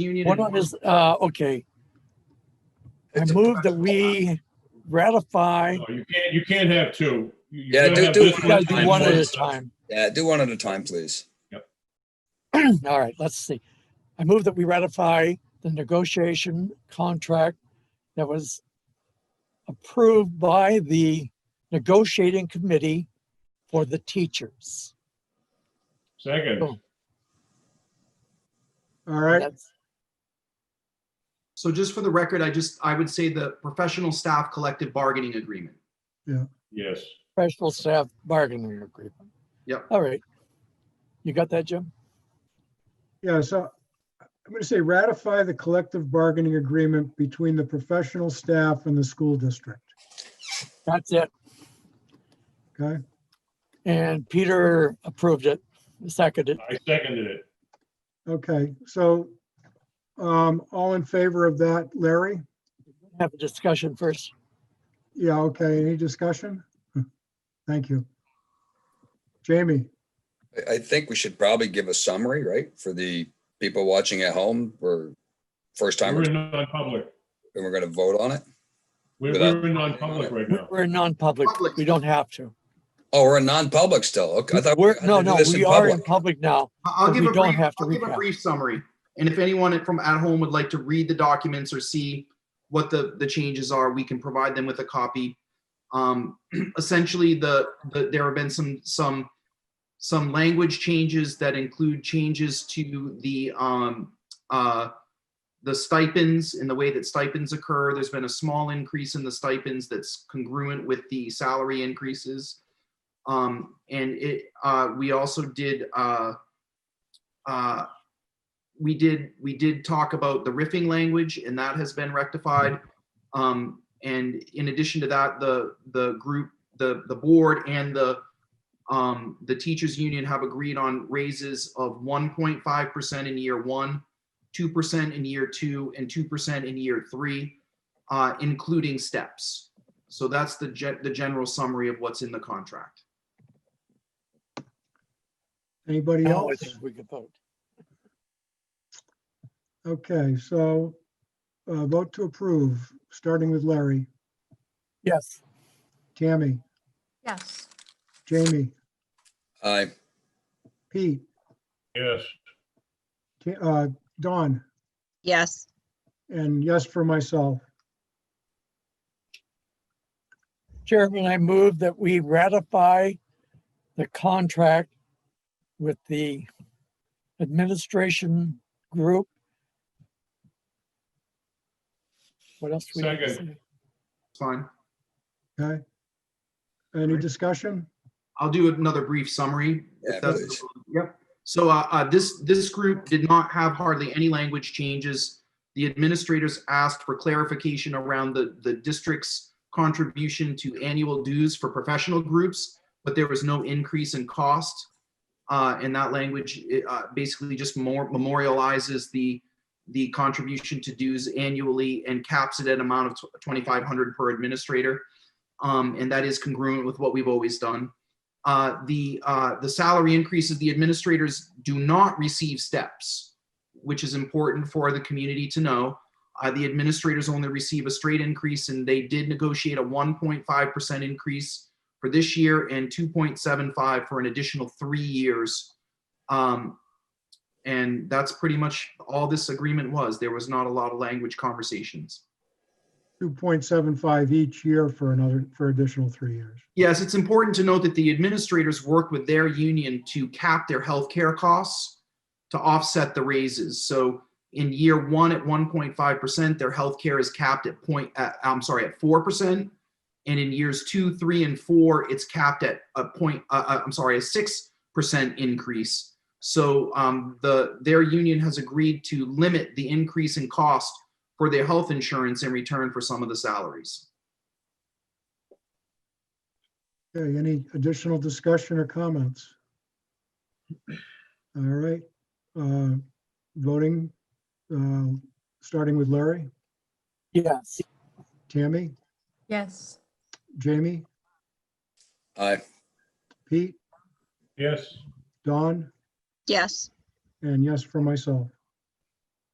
Union. One and- of his, uh, okay, I It's a- move that we ratify, No, You can't, you can't have two. You- you Yeah, gotta do- have do this one we gotta do and one at a this. time. Yeah, do one at a time, please. All right, let's see. I move that we ratify the negotiation contract that was approved by the negotiating committee for the teachers. Second, All right. That's- So just for the record, I just, I would say the professional staff collective bargaining agreement. yes. professional staff bargaining agreement. Yep. All right. You got that, Jim? Yeah, so I'm going to say ratify the collective bargaining agreement between the professional staff and the school district. That's it. Okay, And Peter approved it, seconded it. I seconded it. okay, so um, all in favor of that, Larry? Have a discussion first. Yeah, okay, any discussion? Thank you. Jamie, I, I think we should probably give a summary, right? For the people watching at home, we're first We're timers in non-public. and we're gonna vote on it. We're, Without- we're in non-public right now. We're non-public. Public. We don't have to. Oh, we're in non-public still. Okay, I thought. we We're, had to no, do no, this in we are in public. public now. I- I'll But give we a don't brief, have to I'll give a recap. brief summary. And if anyone from at home would like to read the documents or see what the, the changes are, we can provide them with a copy. Um, essentially, the, the, there have been some, some, some language changes that include changes to the, um, uh, the stipends and the way that stipends occur. There's been a small increase in the stipends that's congruent with the salary increases. Um, and it, uh, we also did, uh, uh, we did, we did talk about the riffing language and that has been rectified. Um, and in addition to that, the, the group, the, the board and the, um, the teachers union have agreed on raises of one point five percent in year one, two percent in year two, and two percent in year three, uh, including steps. So that's the gen- the general summary of what's in the contract. anybody Now I else? think we could vote. Okay, so uh, vote to approve, starting with Larry, Yes, Tammy, Yes. Jamie, Aye, Pete, Yes, Ta- uh, Don. Yes. And yes for myself. Chairman, I move that we ratify the contract with the administration group. What else? do we have to Second. say? It's fine. Okay. Any discussion? I'll do another brief summary. if Yeah, that's- please. Yep. So uh, uh, this, this group did not have hardly any language changes. The administrators asked for clarification around the, the district's contribution to annual dues for professional groups, but there was no increase in cost. Uh, And that language it, uh, basically just more memorializes the, the contribution to dues annually and caps it at an amount of 2,500 per administrator. Um, And that is congruent with what we've always done. Uh, the, uh, the salary increases, the administrators do not receive steps, which is important for the community to know. Uh, the administrators only receive a straight increase and they did negotiate a 1.5% increase for this year and 2.75 for an additional three years. Um, and that's pretty much all this agreement was. There was not a lot of language conversations. 2.75 each year for another, for additional three years. Yes, it's important to note that the administrators work with their union to cap their healthcare costs to offset the raises. So in year one at 1.5%, their healthcare is capped at point, at- I'm sorry, at 4%. And in years two, three, and four, it's capped at a point, uh, uh, I'm sorry, a 6% increase. So um, the, their union has agreed to limit the increase in cost for their health insurance in return for some of the salaries. Okay, any additional discussion or comments? All right, uh, voting, uh, starting with Larry, Yes, Tammy, Yes. Jamie, aye, Pete, yes, Don, Yes. and yes for myself.